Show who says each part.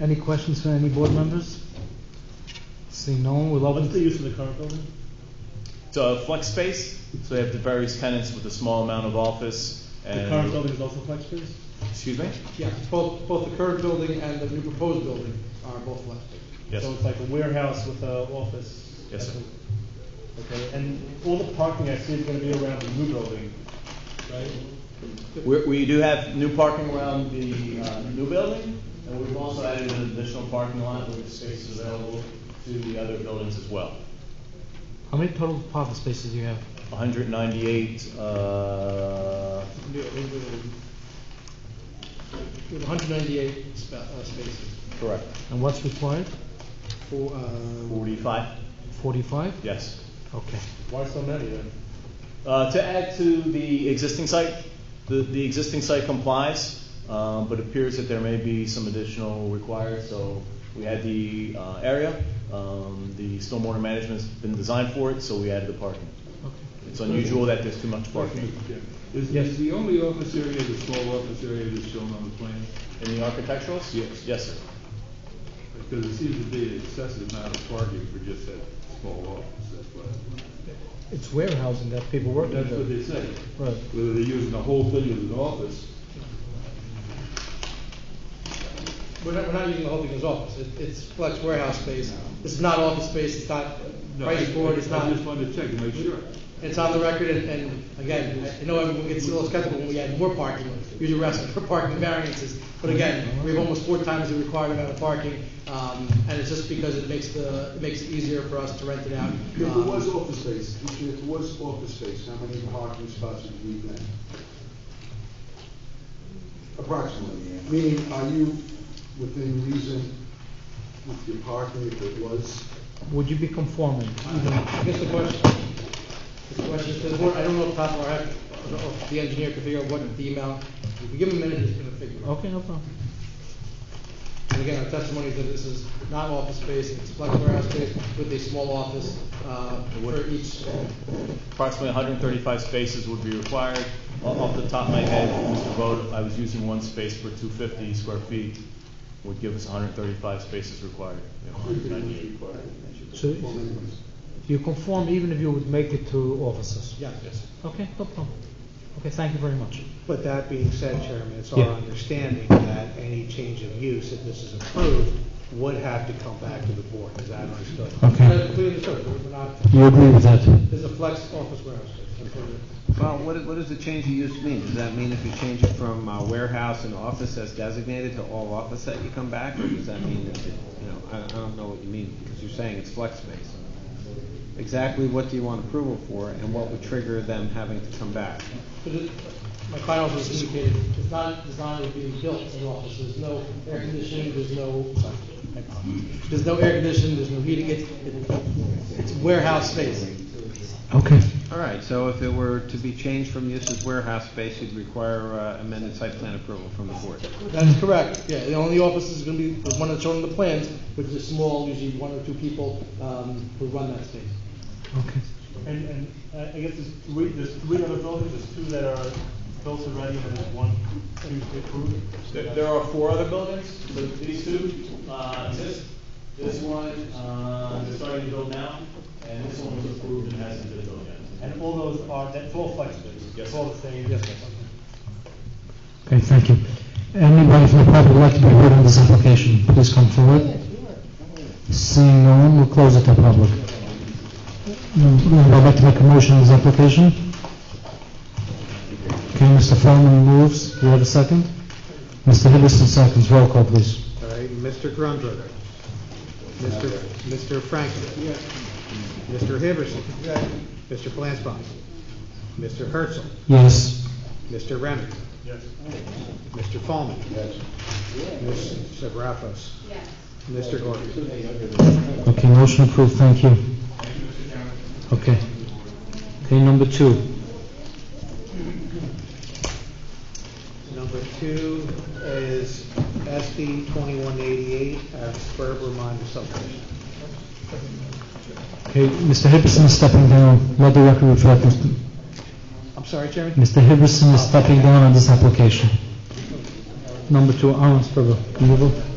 Speaker 1: Any questions from any board members? Seeing no one, we'll
Speaker 2: What's the
Speaker 1: open,
Speaker 2: use of the current building?
Speaker 3: It's a flex space, so they have the various tenants with a small amount of office
Speaker 2: The current
Speaker 3: and,
Speaker 2: building is also flex space?
Speaker 3: excuse me?
Speaker 4: Yeah, both, both the current building and the new proposed building are both left.
Speaker 3: Yes.
Speaker 2: So it's like a warehouse with a office?
Speaker 3: Yes, sir.
Speaker 2: Okay, and all the parking I see is gonna be around the new building, right?
Speaker 3: We, we do have new parking around the, uh, new building, and we've also added an additional parking lot with spaces available to the other buildings as well.
Speaker 1: how many total parking spaces do you have?
Speaker 3: hundred and ninety-eight, uh,
Speaker 4: Hundred ninety-eight spa, uh, spaces
Speaker 3: correct,
Speaker 1: And what's required?
Speaker 4: for, uh,
Speaker 3: forty-five,
Speaker 1: Forty-five?
Speaker 3: yes.
Speaker 1: Okay.
Speaker 2: Why so many then?
Speaker 3: Uh, To add to the existing site, the, the existing site complies, um, but appears that there may be some additional required, so we had the uh, area, um, the stormwater management's been designed for it, so we added the parking. It's unusual that there's too much parking.
Speaker 5: Is, is the only office area, the small office area that's shown on the plan?
Speaker 3: In the architecturals?
Speaker 5: Yes.
Speaker 3: Yes, sir.
Speaker 5: Because it seems to be an excessive amount of parking for just that small office, that's what,
Speaker 1: It's warehousing that people work
Speaker 5: that's what they say.
Speaker 1: Right.
Speaker 5: Whether they're using the whole thing as an office,
Speaker 4: we're not, we're not using the whole thing as office, it, it's flex warehouse space. This is not office space, it's not
Speaker 5: no, I I-
Speaker 4: price board, it's
Speaker 5: I
Speaker 4: not,
Speaker 5: just wanted to check and make sure.
Speaker 4: it's on the record, and, and again, I know everyone gets a little skeptical when we add more parking, usually we're asking for parking variances, but again, we have almost four times the required amount of parking, um, and it's just because it makes the, it makes it easier for us to rent it out.
Speaker 6: If it
Speaker 4: um,
Speaker 6: was office space, if it was office space, how many parking spots would you need then? Approximately, meaning are you within reason with your parking if it was?
Speaker 1: Would you be conforming?
Speaker 4: I guess the question, the question to the board, I don't know if top of our head, I don't know if the engineer can figure out what the amount, if we give him a minute, he's gonna figure it out.
Speaker 1: Okay, no problem.
Speaker 4: And again, our testimony is that this is not office space, it's flex warehouse space with a small office, uh, for each,
Speaker 3: Approximately 135 spaces would be required. O- Off the top of my head, Mr. Vogt, I was using one space per 250 square feet, would give us 135 spaces required. We have 198.
Speaker 1: So you conform even if you would make it to offices?
Speaker 4: yeah.
Speaker 1: Okay, no problem. Okay, thank you very much.
Speaker 7: But that being said, Chairman, it's
Speaker 1: Yeah.
Speaker 7: our understanding that any change of use, if this is approved, would have to come back to the board, is that understood?
Speaker 4: But we understood, we're not,
Speaker 1: You agree with that?
Speaker 4: this is a flex office warehouse space. that's what it is.
Speaker 8: Well, what, what does the change of use mean? Does that mean if you change it from uh, warehouse and office as designated to all office that you come back? Or does that mean, that, you know, I, I don't know what you mean, because you're saying it's flex space. Exactly what do you want approval for, and what would trigger them having to come back?
Speaker 4: But it, my client also has indicated, it's not designed to be built as an office, there's no air conditioning, there's no, sorry, my apologies. there's no air conditioning, there's no heating, it's, it's warehouse space.
Speaker 1: Okay.
Speaker 8: All right, so if it were to be changed from use as warehouse space, you'd require uh, amended site plan approval from the board.
Speaker 4: That is correct, yeah, the only office is gonna be the one that's shown in the plans, which is small, usually one or two people, um, who run that space.
Speaker 1: Okay.
Speaker 2: And, and I I guess there's three, there's three other buildings, there's two that are built already and there's one, two approved.
Speaker 3: There there are four other buildings, but these two uh, exist. This one, uh, they're starting to build now, and this one was approved and hasn't been built yet.
Speaker 2: And all those are, that's all flex space?
Speaker 3: Yes.
Speaker 2: It's all the same?
Speaker 4: Yes.
Speaker 2: Okay.
Speaker 1: Okay, thank you. Anybody from the public would like to be heard on this application, please come forward. Seeing no one, we'll close it to public. Anybody like to make a motion on this application? Okay, Mr. Furman moves, do you have a second? Mr. Hiddleston seconds, roll call, please.
Speaker 7: All right, Mr. Grunberger. Mr. Mr. Franklin. Mr. Hibberson. Mr. Flansbrough. Mr. Herzl.
Speaker 1: Yes.
Speaker 7: Mr. Renner. Mr. Fallman. Ms. Severafos.
Speaker 9: Yes.
Speaker 7: Mr. Gordon.
Speaker 1: Okay, motion approved, thank you. Okay. Okay, number two.
Speaker 7: Number two is SD 2188 at Berber Minor subdivision.
Speaker 1: Okay, Mr. Hiddleston is stepping down, let the record reflect, Mr.
Speaker 7: I'm sorry, Chairman?
Speaker 1: Mr. Hibberson is stepping down on this application. Number two, Aaron Sperber, you will?